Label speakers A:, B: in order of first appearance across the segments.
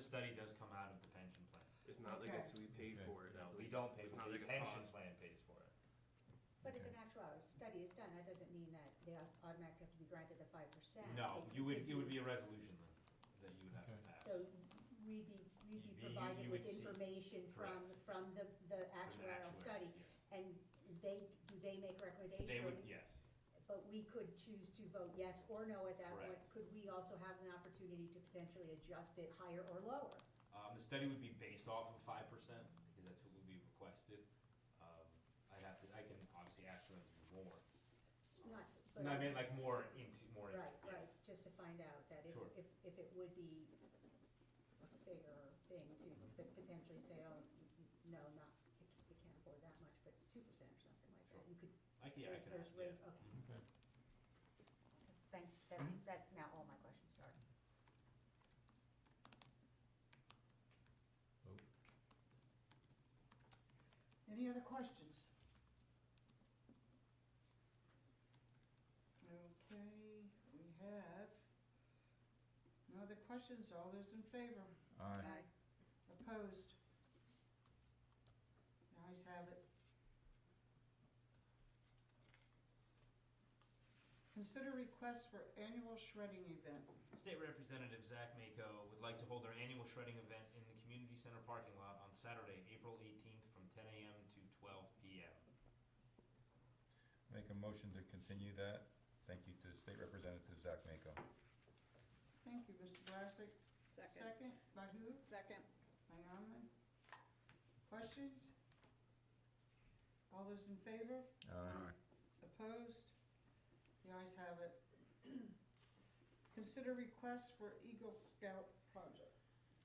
A: study does come out of the pension plan.
B: It's not like
C: Okay.
B: it's, we paid for it. I
A: No, we
B: believe.
A: don't pay,
B: It's
A: for it.
B: not like
A: the
B: a
A: pension
B: cost.
A: plan pays for it.
C: But if
D: Okay.
C: an actual study is done, that doesn't mean that they automatically have to be granted the five percent.
A: No, you would, it would be a resolution then, that you would have
D: Okay.
A: to pass.
C: So we'd be,
A: You-
C: we'd
A: you-
C: be
A: you
C: provided
A: would
C: with
A: see.
C: information from, from the,
A: From
C: the
A: the
C: actuarial
A: actuaries,
C: study.
A: yes.
C: And they, do they make recommendations?
A: They would, yes,
C: But we could choose to vote yes or no at that
A: Correct.
C: point. Could we also have an opportunity to potentially adjust it higher or lower?
A: um, the study would be based off of five percent, because that's what would be requested. Um, I'd have to, I can obviously ask them to do more,
C: Not, but.
A: no, I mean, like, more into, more into.
C: Right,
A: yeah.
C: right, just to find out that if,
A: Sure.
C: if, if it would be a fair thing to
A: Mm-hmm.
C: pot- potentially say, oh, no, not, we c- we can't afford that much, but two percent or something like
A: Sure.
C: that. You could,
A: I can, I
C: there's,
A: can
C: there's
A: ask, yeah. Mm-hmm.
C: rate, okay.
D: Okay.
C: Thanks, that's, that's now all my questions, sorry.
D: Oh,
E: Any other questions? Okay, we have no other questions. All those in favor?
D: Aye.
E: Opposed? The ayes have it. Consider request for annual shredding event.
A: State Representative Zach Mako would like to hold their annual shredding event in the community center parking lot on Saturday, April eighteenth, from ten AM to twelve PM.
D: Make a motion to continue that. Thank you to State Representative Zach Mako.
E: Thank you, Mr. Glassick.
F: Second.
E: by who?
F: Second.
E: By Arman. Questions? All those in favor?
D: Aye.
E: Opposed? The ayes have it. Consider request for Eagle Scout project.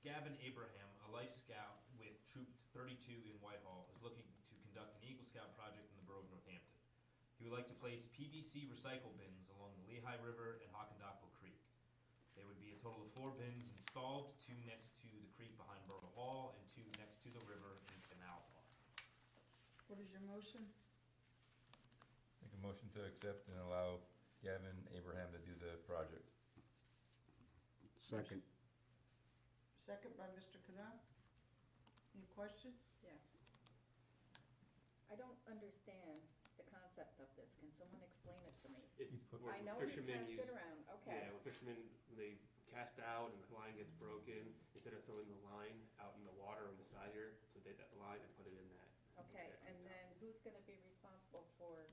A: Gavin Abraham, a Life Scout with Troop 32 in Whitehall, is looking to conduct an Eagle Scout project in the borough of Northampton. He would like to place PVC recycle bins along the Lehigh River and Hockendaco Creek. There would be a total of four bins installed, two next to the creek behind Borough Hall and two next to the river in Canal Park.
E: What is your motion?
D: Make a motion to accept and allow Gavin Abraham to do the project.
G: Second.
E: Second by Mr. Canal. Any questions?
F: Yes. I don't understand the concept of this. Can someone explain it to me?
B: It's
D: You put-
B: where
F: I know we
B: fishermen
F: passed
B: use.
F: it around, okay.
B: Yeah, when fishermen, they cast out and the line gets broken, instead of throwing the line out in the water on the side here, so they take that line and put it in that.
F: Okay,
B: that
F: and
B: down.
F: then who's gonna be responsible for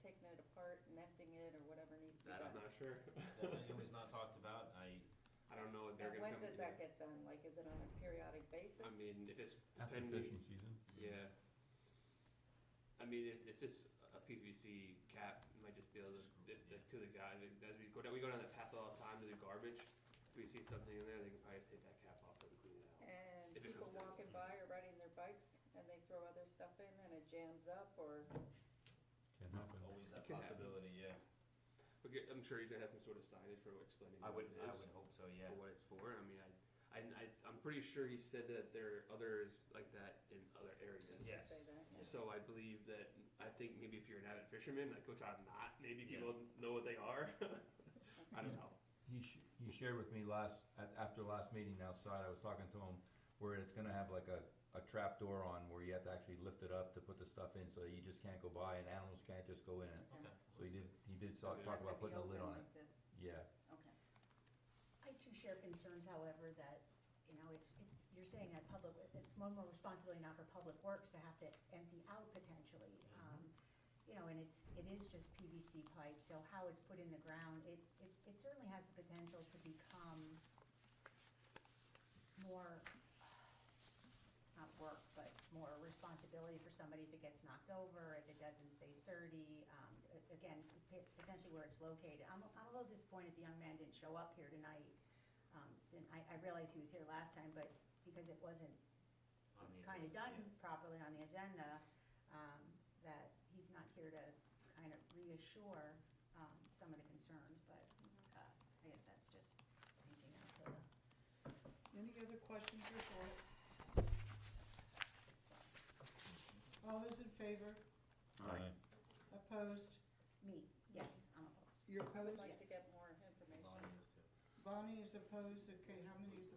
F: taking it apart and emptying it or whatever needs to be
B: That I'm
F: done?
B: not sure.
A: It was not talked about, I,
B: I don't know if they're
F: And
B: gonna
F: when
B: come.
F: does that get done? Like, is it on a periodic basis?
B: I mean, if it's
D: After
B: depending,
D: fishing season?
B: yeah. I mean, it's, it's just a PVC cap, you might just be able to,
A: Screw
B: if,
A: it,
B: the-
A: yeah.
B: to the guy, like, as we go down, we go down that path all the time to the garbage. If we see something in there, they can probably just take that cap off and clean it out.
F: And
B: If it
F: people
B: comes down.
F: walking by or riding their bikes and they throw other stuff in and it jams up or,
D: Can happen.
A: always
B: that
A: that possibility, yeah.
B: Okay, I'm sure he's gonna have some sort of signage for explaining.
A: I
B: what
A: would,
B: it
A: I
B: is,
A: would hope so, yeah.
B: For what it's for, I mean, I, I, I, I'm pretty sure he said that there are others like that in other areas.
F: I
A: Yeah.
F: should say that, yeah.
B: So I believe that, I think maybe if you're an avid fisherman, like which I'm not, maybe
A: Yeah.
B: people know what they are, I don't know.
D: He, sh- he shared with me last, at, after last meeting outside, I was talking to him, where it's gonna have like a, a trap door on where you have to actually lift it up to put the stuff in, so that you just can't go by and animals can't just go in it.
A: Okay.
D: So he did, he did
A: So
D: talk
A: it's
D: talk
F: Not gonna
D: about
F: be
D: putting a lid
F: open
D: on it.
F: like this.
D: Yeah.
F: Okay.
C: I too share concerns, however, that, you know, it's, it- you're saying that public, it's one more responsibility now for public works to have to empty out potentially. um, You know, and it's, it is just PVC pipe, so how it's put in the ground, it, it it certainly has the potential to become more, not work, but more responsibility for somebody if it gets knocked over, if it doesn't stay sturdy, um, a- again, p- potentially where it's located. I'm, I'm a little disappointed the young man didn't show up here tonight, um, sin, I, I realize he was here last time, but because it wasn't
A: On the
C: kind of
A: agenda, yeah.
C: done properly on the agenda, um, that he's not here to kind of reassure, um, some of the concerns, but, uh, I guess that's just speaking out to the
E: Any other questions or thoughts? All those in favor?
G: Aye.
E: Opposed?
C: Me, yes, I'm opposed.
E: You're
F: I would
E: opposed?
F: like to get more information.
A: Bonnie is too.
E: Bonnie is opposed. Okay, how many is